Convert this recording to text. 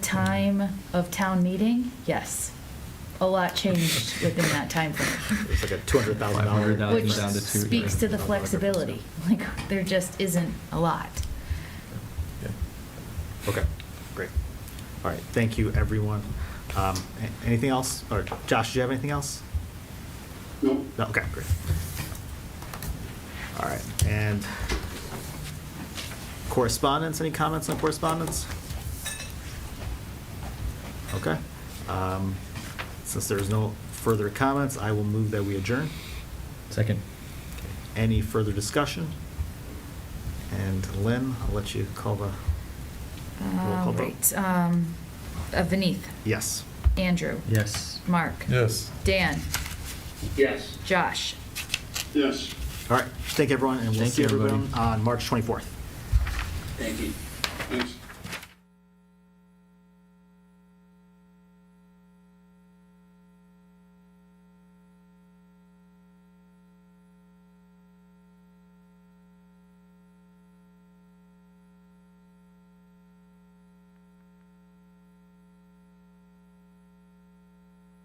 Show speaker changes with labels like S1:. S1: time of town meeting, yes. A lot changed within that timeframe.
S2: It's like a $200,000.
S3: $500,000 Now
S1: Which
S3: it's down to two,
S1: speaks
S3: yeah.
S1: to the flexibility. Like, there just isn't a lot.
S2: Yeah. Okay, great. All right, thank you, everyone. Um, a- Anything else? Or Josh, do you have anything else?
S4: No,
S2: No, okay, great. All right, and correspondence, any comments on correspondence? Okay. um, Since there's no further comments, I will move that we adjourn.
S3: Second.
S2: Any further discussion? And Lynn, I'll let you call the, call
S1: All
S2: vote.
S1: right, um, uh, Vineeth,
S2: yes.
S1: Andrew,
S3: Yes.
S1: Mark,
S5: Yes.
S1: Dan,
S4: yes,
S1: Josh.
S4: yes,
S2: All right, thank you, everyone, and we'll
S3: Thank
S2: see
S3: you,
S2: everyone
S3: everybody.
S2: on March 24th.
S4: thank you. Thanks.